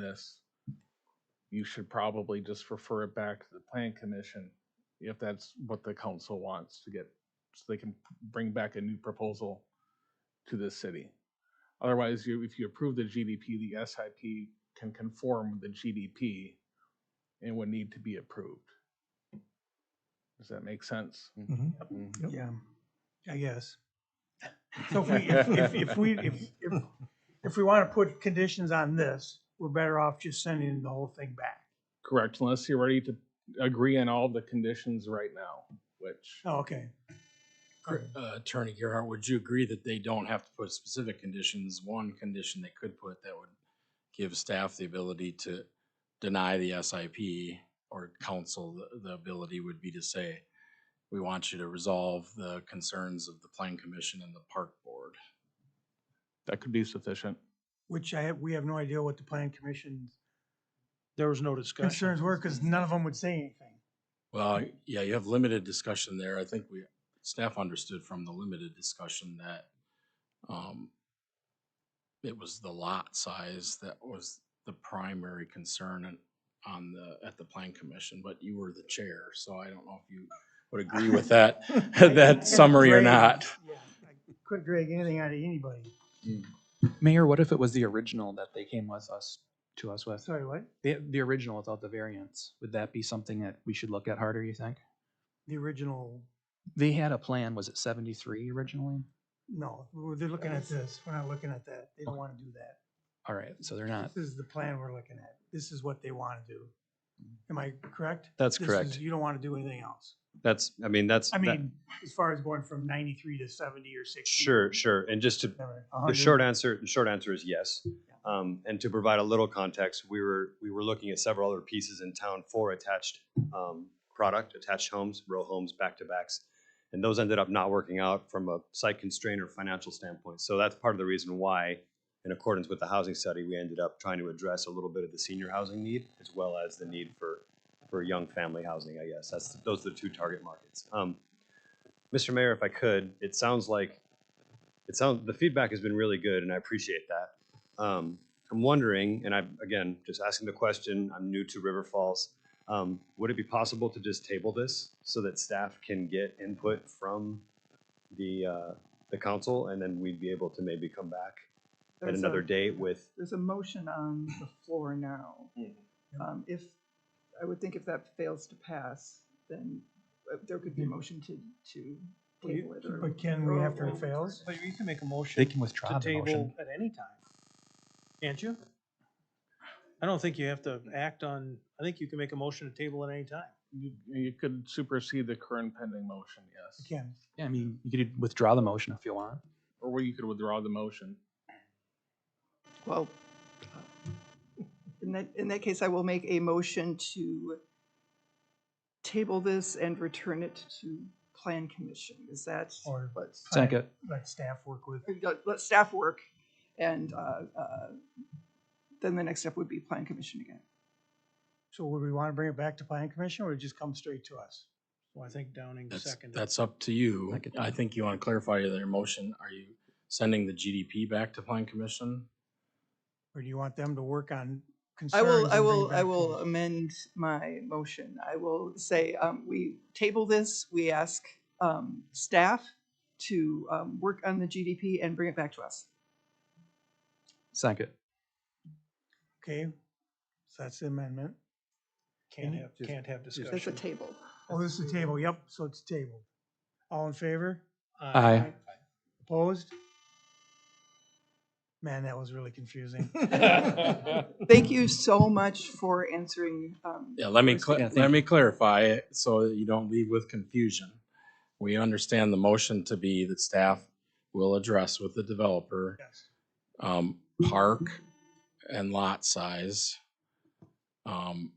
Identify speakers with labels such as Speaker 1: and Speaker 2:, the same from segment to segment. Speaker 1: this, you should probably just refer it back to the plan commission if that's what the council wants to get, so they can bring back a new proposal to the city. Otherwise, you, if you approve the GDP, the SIP can conform with the GDP and would need to be approved. Does that make sense?
Speaker 2: Mhm.
Speaker 3: Mhm.
Speaker 2: Yep. Yeah, I guess. So if we, if, if, if we, if, if, if we want to put conditions on this, we're better off just sending the whole thing back.
Speaker 1: Correct, unless you're ready to agree on all the conditions right now, which.
Speaker 2: Oh, okay.
Speaker 3: Cor- uh, Attorney Gerhart, would you agree that they don't have to put specific conditions? One condition they could put that would give staff the ability to deny the SIP or counsel the, the ability would be to say, we want you to resolve the concerns of the plan commission and the park board.
Speaker 1: That could be sufficient.
Speaker 2: Which I have, we have no idea what the plan commission's
Speaker 4: There was no discussion.
Speaker 2: concerns were because none of them would say anything.
Speaker 3: Well, yeah, you have limited discussion there. I think we, staff understood from the limited discussion that um, it was the lot size that was the primary concern and on the, at the plan commission, but you were the chair, so I don't know if you would agree with that, that summary or
Speaker 2: Drag-
Speaker 3: not.
Speaker 2: yeah, I Couldn't drag anything out of anybody.
Speaker 5: Mayor, what if it was the original that they came with us, to us with?
Speaker 2: Sorry, what?
Speaker 5: The, the original without the variants, would that be something that we should look at harder, you think?
Speaker 2: The original,
Speaker 5: They had a plan, was it seventy-three originally?
Speaker 2: no, we're- they're looking at this. We're not looking at that. They don't want to do that.
Speaker 5: All right, so they're not.
Speaker 2: This is the plan we're looking at. This is what they want to do. Am I correct?
Speaker 6: That's
Speaker 2: This
Speaker 6: correct.
Speaker 2: is- You don't want to do anything else.
Speaker 6: That's, I mean, that's.
Speaker 2: I
Speaker 6: that-
Speaker 2: mean, as far as going from ninety-three to seventy or sixty.
Speaker 6: Sure, sure. And just to, the short answer, the short answer is yes. Um, and to provide a little context, we were, we were looking at several other pieces in town for attached, um, product, attached homes, row homes, back-to-backs. And those ended up not working out from a site constraint or financial standpoint. So that's part of the reason why, in accordance with the housing study, we ended up trying to address a little bit of the senior housing need as well as the need for, for young family housing, I guess. That's, those are the two target markets. Um, Mr. Mayor, if I could, it sounds like it sounds the feedback has been really good and i appreciate that um, i'm wondering and i'm again just asking the question i'm new to river falls um, would it be possible to just table this so that staff can get input from the uh, the council and then we'd be able to maybe come back at
Speaker 7: There's
Speaker 6: another
Speaker 7: a-
Speaker 6: date with
Speaker 7: There's a motion on the floor now.
Speaker 3: Mhm.
Speaker 2: Mm-hmm.
Speaker 7: Um, if, I would think if that fails to pass, then uh, there could be a motion to, to
Speaker 2: Well, you-
Speaker 7: table it or.
Speaker 2: But can we
Speaker 7: or-
Speaker 2: after it
Speaker 7: or-
Speaker 2: fails?
Speaker 4: But you can make a motion.
Speaker 5: They can withdraw
Speaker 4: To
Speaker 5: the motion.
Speaker 4: table at any time, can't you? I don't think you have to act on, I think you can make a motion to table at any time.
Speaker 1: You, you could supersede the current pending motion,
Speaker 2: We
Speaker 1: yes.
Speaker 2: Can.
Speaker 5: Yeah, I mean, you could withdraw the motion if you want.
Speaker 1: Or well, you could withdraw the motion.
Speaker 7: Well, in that, in that case, I will make a motion to table this and return it to plan commission. Is that
Speaker 2: Or-
Speaker 7: what?
Speaker 5: Second,
Speaker 2: Let staff work with.
Speaker 7: Let- Let staff work and, uh, uh, then the next step would be plan commission again.
Speaker 2: So would we want to bring it back to planning commission or it just come straight to us?
Speaker 4: Well, I think Downing
Speaker 3: That's,
Speaker 4: seconded.
Speaker 3: that's up to you.
Speaker 5: Second.
Speaker 3: I think you want to clarify your motion. Are you sending the GDP back to plan commission?
Speaker 2: Or do you want them to work on concerns?
Speaker 7: I will,
Speaker 2: and
Speaker 7: I
Speaker 2: bring it
Speaker 7: will,
Speaker 2: back
Speaker 7: I
Speaker 2: to
Speaker 7: will
Speaker 2: us?
Speaker 7: amend my motion. I will say, um, we table this, we ask, um, staff to, um, work on the GDP and bring it back to us.
Speaker 5: second.
Speaker 2: Okay, so that's the amendment.
Speaker 4: Can't have,
Speaker 2: Just-
Speaker 4: can't have
Speaker 7: That's a
Speaker 4: discussion.
Speaker 7: table.
Speaker 2: Oh, this is the table. Yep, so it's tabled. All in favor?
Speaker 4: Uh,
Speaker 5: Aye.
Speaker 2: Opposed? Man, that was really confusing.
Speaker 7: Thank you so much for answering, um.
Speaker 3: Yeah, let me,
Speaker 7: first-
Speaker 3: cla-
Speaker 5: Yeah, thank
Speaker 3: let
Speaker 5: you.
Speaker 3: me clarify it so that you don't leave with confusion. We understand the motion to be that staff will address with the developer,
Speaker 2: Yes.
Speaker 3: um, park and lot size. Um,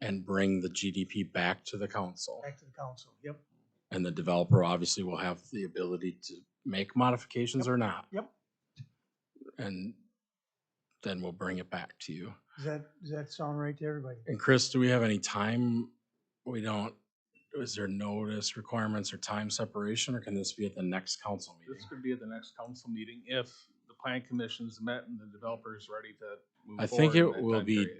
Speaker 3: and bring the GDP back to the council.
Speaker 2: Back to the council. Yep,
Speaker 3: And the developer obviously will have the ability to make modifications or not.
Speaker 2: yep.
Speaker 3: And then we'll bring it back to you.
Speaker 2: Does that, does that sound right to everybody?
Speaker 3: And Chris, do we have any time? We don't, is there notice requirements or time separation, or can this be at the next council
Speaker 1: This
Speaker 3: meeting?
Speaker 1: could be at the next council meeting if the plan commission's met and the developer's ready to move
Speaker 3: I think
Speaker 1: forward in
Speaker 3: it
Speaker 1: that
Speaker 3: will
Speaker 1: time
Speaker 3: be
Speaker 1: period.